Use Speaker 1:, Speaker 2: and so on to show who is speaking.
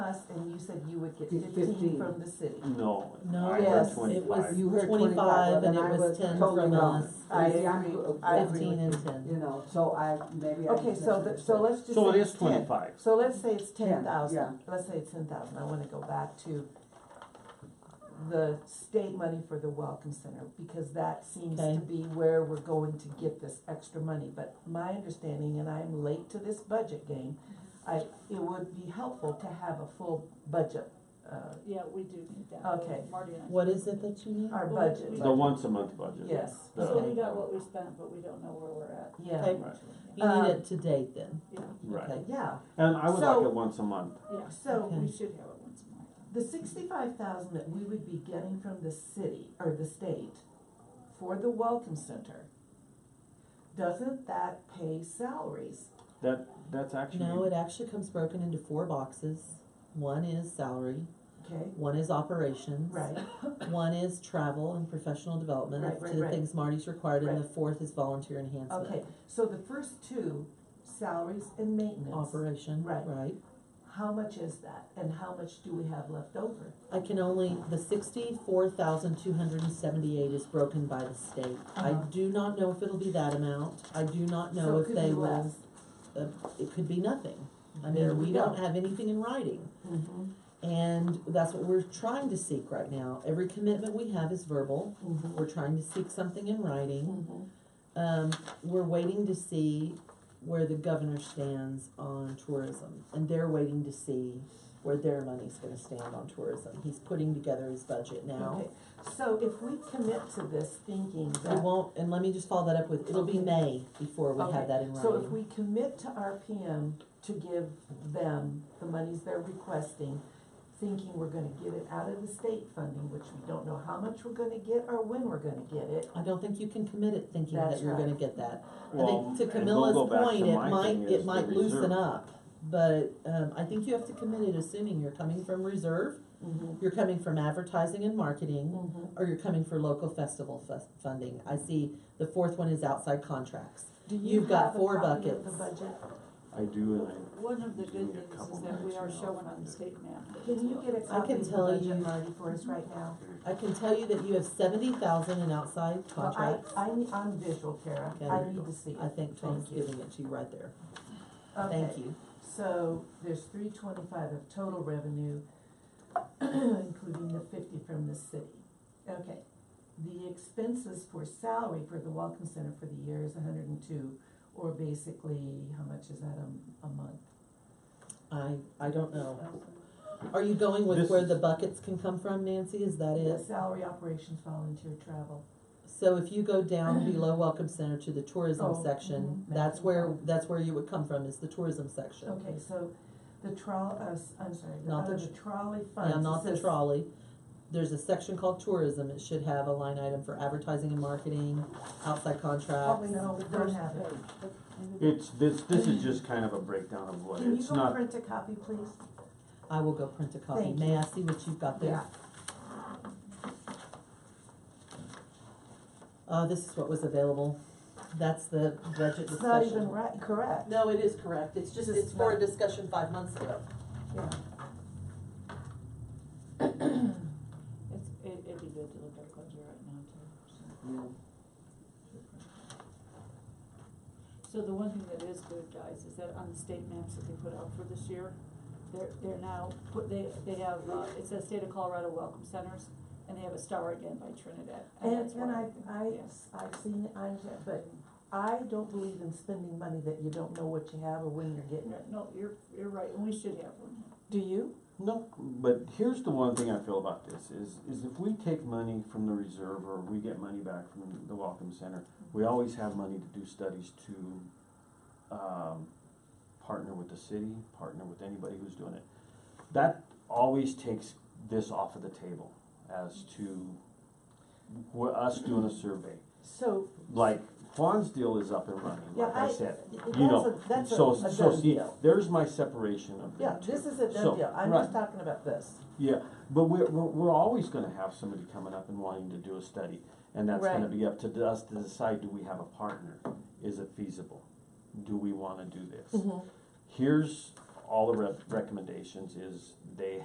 Speaker 1: us and you said you would get
Speaker 2: Get
Speaker 1: fifteen
Speaker 2: 15.
Speaker 1: from the city.
Speaker 3: No.
Speaker 4: No,
Speaker 3: I heard
Speaker 2: yes, it
Speaker 4: It
Speaker 3: 25.
Speaker 4: was
Speaker 2: You heard
Speaker 4: twenty-five and it
Speaker 2: 25,
Speaker 4: was
Speaker 2: and I
Speaker 4: ten
Speaker 2: was totally
Speaker 4: from
Speaker 2: wrong.
Speaker 4: us,
Speaker 1: I
Speaker 2: See, I'm-
Speaker 1: agree, I agree
Speaker 4: fifteen
Speaker 1: with
Speaker 4: and
Speaker 1: you.
Speaker 4: ten.
Speaker 2: You know, so I, maybe I.
Speaker 1: Okay, so, the- so let's just.
Speaker 3: So it
Speaker 1: say
Speaker 3: is
Speaker 1: it's 10.
Speaker 3: twenty-five.
Speaker 1: So let's say it's ten
Speaker 2: Ten, yeah.
Speaker 1: thousand, let's say it's ten thousand, I wanna go back to the state money for the Welcome Center, because that seems
Speaker 4: Okay.
Speaker 1: to be where we're going to get this extra money, but my understanding, and I'm late to this budget game, I, it would be helpful to have a full budget, uh,
Speaker 5: Yeah, we do need that.
Speaker 1: Okay.
Speaker 5: Marty and I.
Speaker 4: What is it that you need?
Speaker 1: our
Speaker 5: Well,
Speaker 1: budget,
Speaker 5: we-
Speaker 3: The once a month budget.
Speaker 1: yes,
Speaker 3: The-
Speaker 5: So we got what we spent, but we don't know where we're at.
Speaker 1: yeah,
Speaker 4: Okay.
Speaker 3: Right,
Speaker 4: You need
Speaker 1: um,
Speaker 4: it to date then,
Speaker 5: Yeah,
Speaker 3: right.
Speaker 4: okay?
Speaker 1: yeah,
Speaker 3: And I would
Speaker 1: So-
Speaker 3: like it once a month.
Speaker 5: yeah,
Speaker 1: so.
Speaker 4: Okay.
Speaker 5: we should have it once more.
Speaker 1: The sixty-five thousand that we would be getting from the city or the state for the Welcome Center, doesn't that pay salaries?
Speaker 3: That, that's
Speaker 4: No,
Speaker 3: actually,
Speaker 4: it actually comes broken into four boxes. One is salary,
Speaker 1: Okay,
Speaker 4: one is operations.
Speaker 1: right,
Speaker 4: One is travel and professional development,
Speaker 1: Right,
Speaker 4: up
Speaker 1: right,
Speaker 4: to the
Speaker 1: right.
Speaker 4: things Marty's required, and
Speaker 1: Right.
Speaker 4: the fourth is volunteer enhancement.
Speaker 1: okay, so the first two, salaries and maintenance,
Speaker 4: Operation,
Speaker 1: Right.
Speaker 4: right.
Speaker 1: how much is that and how much do we have left over?
Speaker 4: I can only, the sixty-four thousand two hundred and seventy-eight is broken by the state. I
Speaker 1: Uh-huh.
Speaker 4: do not know if it'll be that amount, I do not
Speaker 1: So
Speaker 4: know
Speaker 1: it
Speaker 4: if
Speaker 1: could be
Speaker 4: they will,
Speaker 1: less.
Speaker 4: it could be nothing. I
Speaker 1: There
Speaker 4: mean,
Speaker 1: we
Speaker 4: we
Speaker 1: go.
Speaker 4: don't have anything in writing, Mm-hmm,
Speaker 1: Mhm,
Speaker 4: and that's what we're trying to seek right now. Every commitment we have is verbal,
Speaker 1: mhm,
Speaker 4: we're trying to seek something in writing.
Speaker 1: mhm.
Speaker 4: Um, we're waiting to see where the governor stands on tourism, and they're waiting to see where their money's gonna stand on tourism. He's putting together his budget now.
Speaker 1: Okay, so if we commit to this thinking
Speaker 4: We
Speaker 1: that
Speaker 4: won't, and let me just follow that up with, it'll be May before we
Speaker 1: Okay,
Speaker 4: have that in
Speaker 1: So if
Speaker 4: writing.
Speaker 1: we commit to RPM to give them the monies they're requesting, thinking we're gonna get it out of the state funding, which we don't know how much we're gonna get or when we're gonna get it.
Speaker 4: I don't think you can commit it thinking that
Speaker 1: That's
Speaker 4: you're
Speaker 1: right.
Speaker 4: gonna get that. I
Speaker 3: well,
Speaker 4: think to
Speaker 3: and we'll go
Speaker 4: Camilla's
Speaker 3: back
Speaker 4: point,
Speaker 3: to
Speaker 4: it
Speaker 3: my thing
Speaker 4: might,
Speaker 3: is
Speaker 4: it
Speaker 3: the
Speaker 4: might loosen
Speaker 3: reserve.
Speaker 4: up, but, um, I think you have to commit it assuming you're coming from reserve,
Speaker 1: Mm-hmm.
Speaker 4: you're coming from advertising and marketing,
Speaker 1: Mm-hmm.
Speaker 4: or you're coming for local festival fes- funding. I see the fourth one is outside contracts.
Speaker 1: Do you
Speaker 4: You've got
Speaker 1: have a
Speaker 4: four
Speaker 1: copy of the
Speaker 4: buckets.
Speaker 1: budget?
Speaker 3: I do, and
Speaker 5: One of the
Speaker 3: Give
Speaker 5: good
Speaker 3: me a
Speaker 5: things
Speaker 3: couple
Speaker 5: is that we
Speaker 3: minutes
Speaker 5: are
Speaker 3: and I'll
Speaker 5: showing on
Speaker 3: find
Speaker 5: the
Speaker 3: it.
Speaker 5: state map.
Speaker 1: Can you get a copy
Speaker 4: can
Speaker 1: of the
Speaker 4: tell you-
Speaker 1: budget, Marty, for us right now?
Speaker 4: I can tell you that you have seventy thousand in outside
Speaker 1: Well, I,
Speaker 4: contracts.
Speaker 1: I, need- I'm visual, Kara,
Speaker 4: Okay.
Speaker 1: I need to see
Speaker 4: I
Speaker 1: it.
Speaker 4: think Tom's
Speaker 1: Thank you.
Speaker 4: giving it to you right there.
Speaker 1: Okay.
Speaker 4: Thank you.
Speaker 1: So there's three twenty-five of total revenue, including the fifty from the city. Okay, the expenses for salary for the Welcome Center for the year is hundred and two, or basically, how much is that a, a month?
Speaker 4: I, I don't know. Are you going with
Speaker 3: This
Speaker 4: where
Speaker 3: is-
Speaker 4: the buckets can come from, Nancy? Is that
Speaker 1: The
Speaker 4: it?
Speaker 1: Salary, operations, volunteer, travel.
Speaker 4: So if you go down below Welcome Center to the tourism
Speaker 1: Oh,
Speaker 4: section,
Speaker 1: mhm.
Speaker 4: that's where, that's where you would come from, is the tourism section.
Speaker 1: Okay, so the trolley, uh, s- I'm sorry, the,
Speaker 4: Not the
Speaker 1: under the trolley funds.
Speaker 4: Yeah,
Speaker 1: it
Speaker 4: not the
Speaker 1: says-
Speaker 4: trolley. There's a section called tourism. It should have a line item for advertising and marketing, outside contracts.
Speaker 1: Probably no, we don't have it.
Speaker 3: it's, this, this is just kind of a breakdown of what,
Speaker 1: Can you
Speaker 3: it's
Speaker 1: go
Speaker 3: not,
Speaker 1: print a copy, please?
Speaker 4: I will go print a copy.
Speaker 1: Thank
Speaker 4: May
Speaker 1: you.
Speaker 4: I see what you've got there? Uh, this is what was available. That's the budget
Speaker 1: It's not even
Speaker 4: discussion.
Speaker 1: right, correct.
Speaker 4: No, it is correct. It's just,
Speaker 1: Just
Speaker 4: it's for a
Speaker 1: not-
Speaker 4: discussion five months ago.
Speaker 1: Yeah.
Speaker 5: It's, it, it'd be good to look at budget right now too, so. So the one thing that is good, guys, is that on the state maps that they put out for this year, they're, they're now, put, they, they have, uh, it says State of Colorado Welcome Centers, and they have a star again by Trinidad.
Speaker 1: And,
Speaker 5: that's
Speaker 1: and I,
Speaker 5: why-
Speaker 1: I,
Speaker 5: Yes.
Speaker 1: I've seen, it, I understand, but I don't believe in spending money that you don't know what you have or when you're getting it.
Speaker 5: Right, No, you're, you're right, and we should have one.
Speaker 1: Do you?
Speaker 3: no, but here's the one thing I feel about this, is, is if we take money from the reserve or we get money back from the Welcome Center, we always have money to do studies to, um, partner with the city, partner with anybody who's doing it. That always takes this off of the table as to wh- us doing a survey.
Speaker 1: So,
Speaker 3: like Juan's deal is up and running,
Speaker 1: yeah,
Speaker 3: like
Speaker 1: I,
Speaker 3: I
Speaker 1: that's
Speaker 3: said.
Speaker 1: a, that's a,
Speaker 3: So,
Speaker 1: a
Speaker 3: so
Speaker 1: done
Speaker 3: see,
Speaker 1: deal.
Speaker 3: there's my separation of
Speaker 1: Yeah,
Speaker 3: them two.
Speaker 1: this is a done
Speaker 3: So,
Speaker 1: deal. I'm
Speaker 3: right.
Speaker 1: just talking about this.
Speaker 3: Yeah, but we're, we're, we're always gonna have somebody coming up and wanting to do a study, and that's gonna
Speaker 1: Right.
Speaker 3: be up to us to decide, do we have
Speaker 1: Mm-hmm.
Speaker 3: a Mm-hmm. partner? Is it feasible? Do we wanna do this? Here's all the rec- recommendations is they